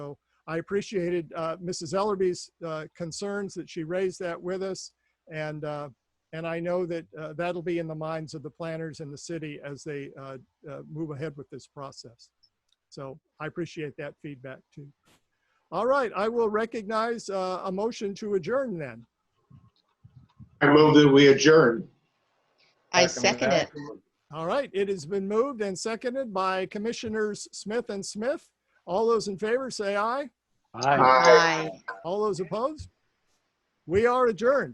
I appreciated uh, Mrs. Ellerby's uh, concerns that she raised that with us. And, uh, and I know that uh, that'll be in the minds of the planners in the city as they uh, uh, move ahead with this process. So I appreciate that feedback too. All right, I will recognize uh, a motion to adjourn then. I move that we adjourn. I second it. All right, it has been moved and seconded by Commissioners Smith and Smith. All those in favor say aye. Aye. Aye. Aye. All those opposed? We are adjourned.